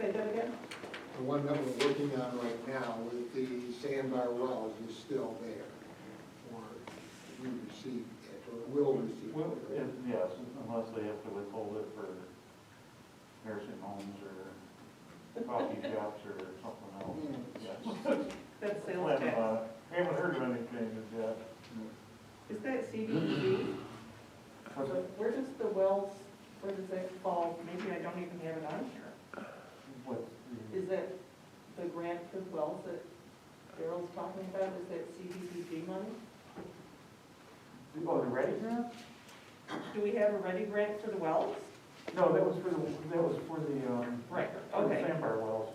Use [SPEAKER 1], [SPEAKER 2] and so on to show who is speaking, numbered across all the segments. [SPEAKER 1] that, the one that we're working on right now with the sandbar wells is still there. Or we received it, or will receive
[SPEAKER 2] Well,
[SPEAKER 1] it.
[SPEAKER 2] it- yes, unless they have to withhold it for nursing homes or coffee shops or something else, yes.
[SPEAKER 3] That's sales
[SPEAKER 2] Haven't,
[SPEAKER 3] tax.
[SPEAKER 2] uh, Haven't heard of any changes yet.
[SPEAKER 3] Is that CDBG?
[SPEAKER 2] What's that?
[SPEAKER 3] Where does the wells, where does that fall? Maybe I don't even have it on here.
[SPEAKER 2] What's the-
[SPEAKER 3] Is that the grant for the wells that Daryl's talking about? Is that CDBG money?
[SPEAKER 2] Oh, the ready grant?
[SPEAKER 3] Do we have a ready grant for the wells?
[SPEAKER 2] No, that was for the, that was for the, um.
[SPEAKER 3] Right,
[SPEAKER 2] for the
[SPEAKER 3] okay.
[SPEAKER 2] Sandbar wells.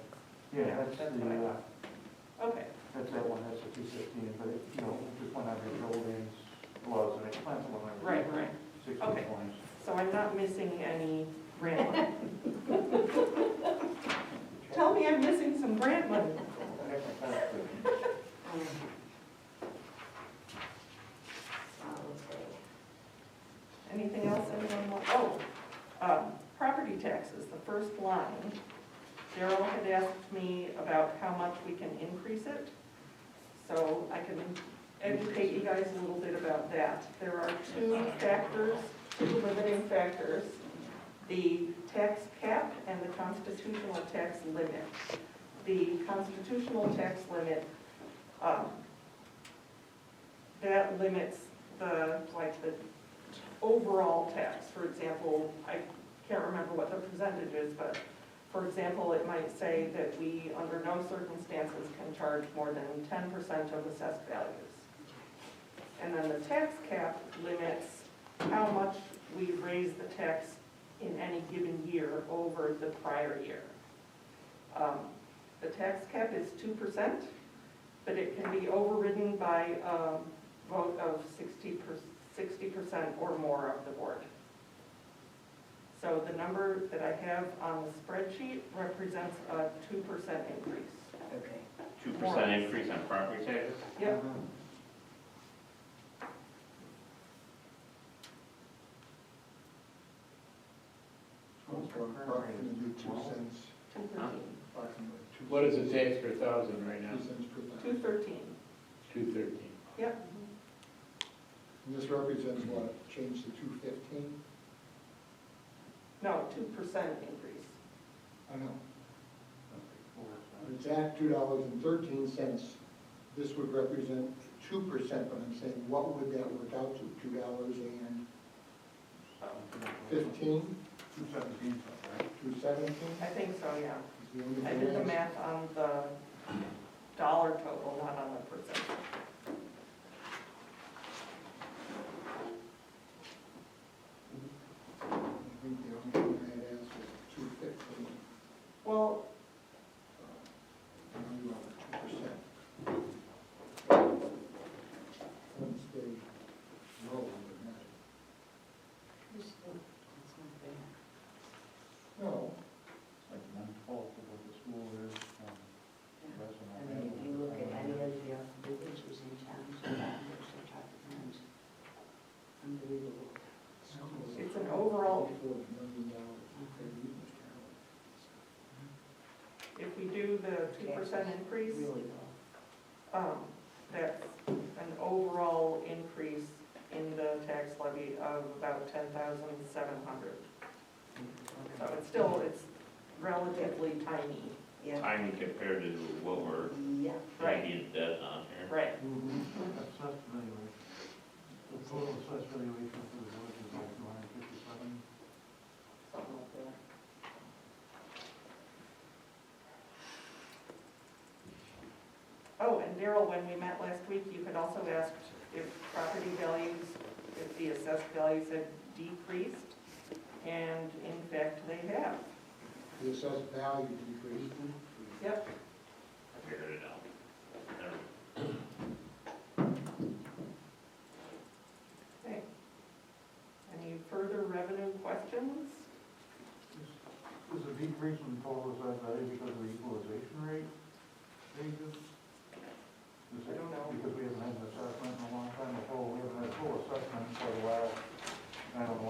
[SPEAKER 2] Yeah, that's
[SPEAKER 3] That's what I
[SPEAKER 2] the, uh,
[SPEAKER 3] thought. Okay,
[SPEAKER 2] that's that one, that's the two fifteen, but it, you know, it just went under buildings, was, and it plants one under.
[SPEAKER 3] right, right.
[SPEAKER 2] Sixty
[SPEAKER 3] Okay.
[SPEAKER 2] points.
[SPEAKER 3] So I'm not missing any grant money. Tell me I'm missing some grant money. Um, Anything else anyone want? Oh, um, property taxes, the first line. Daryl had asked me about how much we can increase it. So I can educate you guys a little bit about that. There are two factors, two limiting factors. The tax cap and the constitutional tax limit. The constitutional tax limit, um, that limits the, like, the overall tax, for example, I can't remember what the percentage is, but for example, it might say that we, under no circumstances, can charge more than ten percent of assessed values. And then the tax cap limits how much we raise the tax in any given year over the prior year. Um, The tax cap is two percent, but it can be overridden by a vote of sixty percent sixty percent or more of the board. So the number that I have on the spreadsheet represents a two percent increase.
[SPEAKER 4] Okay.
[SPEAKER 5] Two percent increase on property taxes?
[SPEAKER 3] Yep,
[SPEAKER 1] It's one, Approximately two cents,
[SPEAKER 3] two thirteen.
[SPEAKER 1] approximately two.
[SPEAKER 6] What is the
[SPEAKER 1] cents.
[SPEAKER 6] tax per thousand right now?
[SPEAKER 1] Two cents per
[SPEAKER 3] Two
[SPEAKER 1] thousand.
[SPEAKER 3] thirteen,
[SPEAKER 6] Two thirteen.
[SPEAKER 3] yep.
[SPEAKER 1] And this represents what, change to two fifteen?
[SPEAKER 3] No, two percent increase.
[SPEAKER 1] I know. It's at two dollars and thirteen cents, this would represent two percent, but I'm saying, what would that work out to, two dollars and fifteen,
[SPEAKER 2] Two seventeen, right?
[SPEAKER 1] two seventeen?
[SPEAKER 3] I think so, yeah.
[SPEAKER 1] Is the only
[SPEAKER 3] I did the
[SPEAKER 1] thing that's-
[SPEAKER 3] math on the dollar total, not on the percent.
[SPEAKER 1] I think the only thing I'd ask is two fifteen,
[SPEAKER 3] Well,
[SPEAKER 1] and you two percent. One stage low, but not, no,
[SPEAKER 2] Like one twelfth of what the school is, um, less than
[SPEAKER 4] I mean, if you look at any of the uh, villages and towns, and towns, and towns, unbelievable.
[SPEAKER 3] it's an overall
[SPEAKER 1] four million dollars. They're using it now.
[SPEAKER 3] if we do the two percent increase,
[SPEAKER 4] Really low.
[SPEAKER 3] Um, that's an overall increase in the tax levy of about ten thousand seven hundred. So it's still, it's relatively tiny.
[SPEAKER 4] Yeah,
[SPEAKER 5] Tiny compared to what we're
[SPEAKER 4] yeah,
[SPEAKER 5] maybe debt on here.
[SPEAKER 3] Right.
[SPEAKER 2] Assessed valuation. The total assessed valuation for the village is like two hundred fifty-seven.
[SPEAKER 4] something like that.
[SPEAKER 3] Oh, and Daryl, when we met last week, you had also asked if property values, if the assessed values had decreased, and in fact, they have.
[SPEAKER 1] The assessed value decreased.
[SPEAKER 3] Yep.
[SPEAKER 5] I Figured it out. Never mind.
[SPEAKER 3] Okay. Any further revenue questions?
[SPEAKER 2] Is the decrease in total assessed value because of the equalization rate changes? Is
[SPEAKER 3] I
[SPEAKER 2] it
[SPEAKER 3] don't know.
[SPEAKER 2] because we haven't had an assessment in a long time, the whole, we haven't had a full assessment for a while? I don't know